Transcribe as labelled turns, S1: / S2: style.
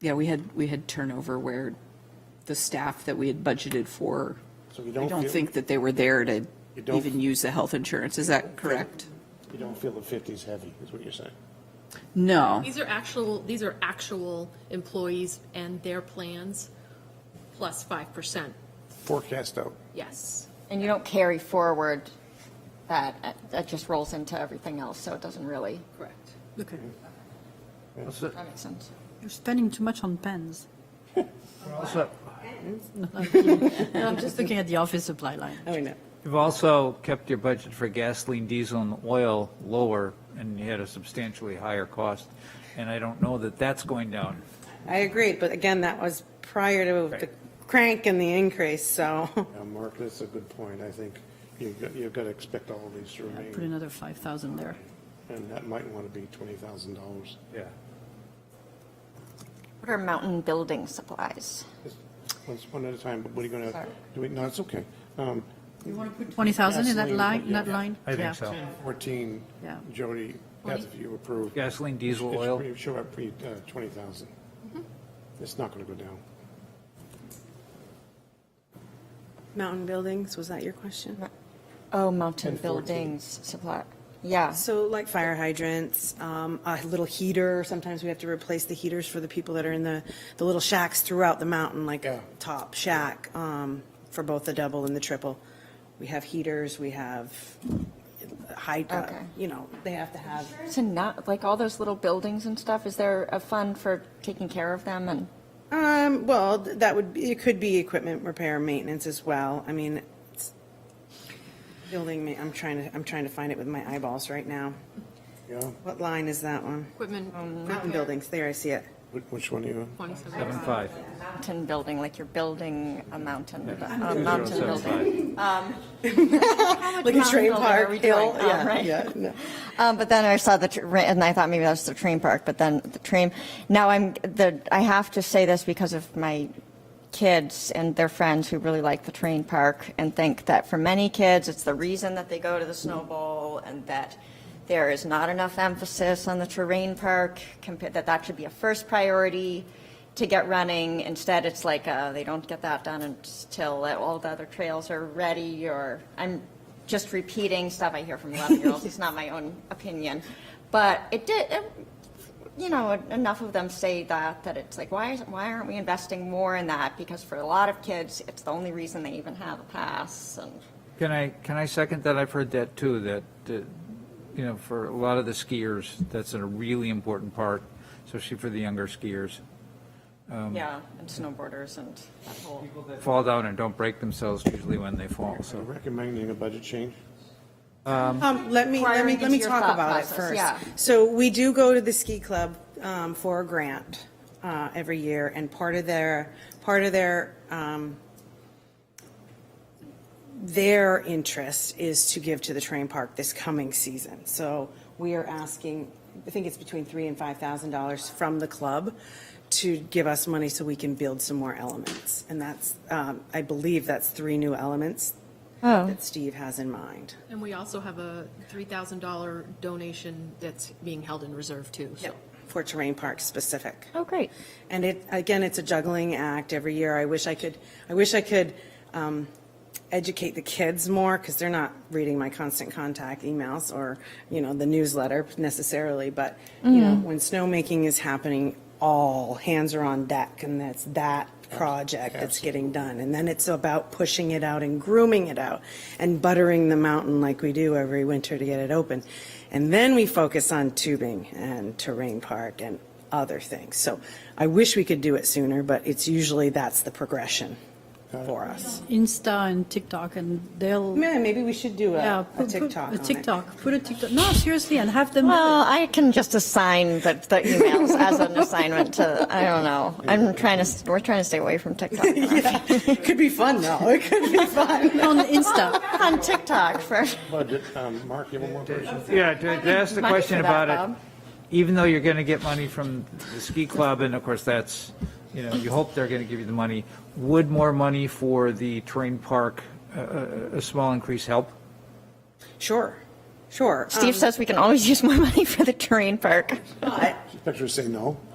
S1: Yeah, we had, we had turnover where the staff that we had budgeted for,
S2: So you
S1: I
S2: don't
S1: don't
S2: feel,
S1: think that they were there to
S2: You don't-
S1: even use the health insurance. Is that correct?
S2: you don't feel the 50's heavy, is what you're saying?
S1: No.
S3: These are actual, these are actual employees and their plans, plus 5%,
S2: Forecast out.
S3: yes.
S4: And you don't carry forward that, uh, that just rolls into everything else, so it doesn't really,
S3: Correct.
S5: Okay.
S4: that makes sense.
S5: You're spending too much on pens.
S6: Also,
S5: No, I'm just looking at the office supply line.
S7: I know.
S6: you've also kept your budget for gasoline, diesel, and oil lower, and you had a substantially higher cost, and I don't know that that's going down.
S7: I agree, but again, that was prior to the crank and the increase, so.
S2: Yeah, Mark, that's a good point. I think you've got, you've got to expect all of these to
S5: Put
S2: remain,
S5: another 5,000 there.
S2: and that might want to be $20,000.
S6: Yeah.
S4: What are mountain building supplies?
S2: Just Let's, one at a time, but what are you going to,
S4: Sorry.
S2: do we, no, it's okay. Um,
S5: You want to put 20,000 in that
S2: Gasoline,
S5: line, in
S2: yeah.
S5: that line?
S6: I
S5: Yeah.
S6: think so.
S2: 14,
S5: Yeah.
S2: Jody, that's if you approve.
S6: Gasoline, diesel,
S2: It's
S6: oil,
S2: pretty- Show up, pretty, uh, 20,000. It's not going to go down.
S7: Mountain buildings, was that your question?
S4: Oh, mountain
S2: 1014.
S4: buildings supply, yeah.
S7: So like fire hydrants, um, a little heater, sometimes we have to replace the heaters for the people that are in the, the little shacks throughout the mountain, like a top shack, um, for both the double and the triple. We have heaters, we have high, uh,
S4: Okay.
S7: you know, they have to have.
S4: So not, like all those little buildings and stuff, is there a fund for taking care of them and?
S7: Um, well, th- that would, be it could be equipment repair, and maintenance as well. I mean, it's building, ma- I'm trying to, I'm trying to find it with my eyeballs right now.
S2: Yeah,
S7: What line is that one?
S3: Equipment.
S4: Um,
S7: Mountain buildings, there, I see it.
S2: Wh- which one are you?
S6: seven
S3: 27.
S6: five.
S4: Mountain building, like you're building a mountain, a
S6: Zero
S4: mountain
S6: seven
S4: building.
S6: five.
S7: Like a
S4: mountain
S7: train
S4: building are
S7: park,
S4: we
S7: hill,
S4: doing? Oh,
S7: yeah,
S4: right.
S7: yeah, no.
S4: Um, but then I saw the, tr- and I thought maybe that was the train park, but then the train, now I'm, the, I have to say this because of my kids and their friends who really like the train park and think that for many kids, it's the reason that they go to the Snow Bowl and that there is not enough emphasis on the terrain park, compared, that that should be a first priority to get running. Instead, it's like, uh, they don't get that done until all the other trails are ready or, I'm just repeating stuff I hear from 11-year-olds. It's not my own opinion. But it did, it- you know, enough of them say that, that it's like, why, is- why aren't we investing more in that? Because for a lot of kids, it's the only reason they even have a pass and.
S6: Can I, can I second that? I've heard that too, that, uh, you know, for a lot of the skiers, that's a really important part, especially for the younger skiers.
S4: Yeah, and snowboarders and that whole.
S6: Fall down and don't break themselves usually when they fall,
S2: So
S6: so.
S2: recommending a budget change?
S7: Um, let me, let me,
S4: Wiring
S7: let me
S4: into your
S7: talk
S4: thought
S7: about it
S4: process,
S7: first.
S4: yeah.
S7: So we do go to the ski club, um, for a grant, uh, every year, and part of their, part of their, um, their interest is to give to the train park this coming season. So we are asking, I think it's between three and five thousand dollars from the club to give us money so we can build some more elements. And that's, um, I believe that's three new elements that Steve has in mind.
S3: And we also have a $3,000 donation that's being held in reserve too, so.
S7: For terrain park specific.
S4: Oh, great.
S7: And it, again, it's a juggling act every year. I wish I could, I wish I could um, educate the kids more because they're not reading my constant contact emails or, you know, the newsletter necessarily. But, you know, when snowmaking is happening, all hands are on deck and that's that project that's getting done. And then it's about pushing it out and grooming it out and buttering the mountain like we do every winter to get it open. And then we focus on tubing and terrain park and other things. So I wish we could do it sooner, but it's usually that's the progression for us.
S5: Insta and TikTok, and they'll,
S7: Yeah, maybe we should do
S5: yeah.
S7: a, a
S5: put- put
S7: TikTok on
S5: A
S7: it.
S5: TikTok, put a TikTok, no, seriously, and have them.
S4: Well, I can just assign the, the emails as an assignment to, I don't know. I'm trying to, s- we're trying to stay away from TikTok.
S7: It could be fun though. It could be fun.
S5: On Insta.
S4: On TikTok for.
S2: Budget, um, Mark, you have one more person?
S6: Yeah, to to ask the
S4: Money
S6: question
S4: for that,
S6: about it,
S4: Bob.
S6: even though you're going to get money from the ski club, and of course, that's, you know, you hope they're going to give you the money, would more money for the terrain park, uh, uh, a small increase help?
S7: Sure, sure.
S4: um, Steve says we can always use more money for the terrain park.
S7: Um, but
S2: Inspector say no.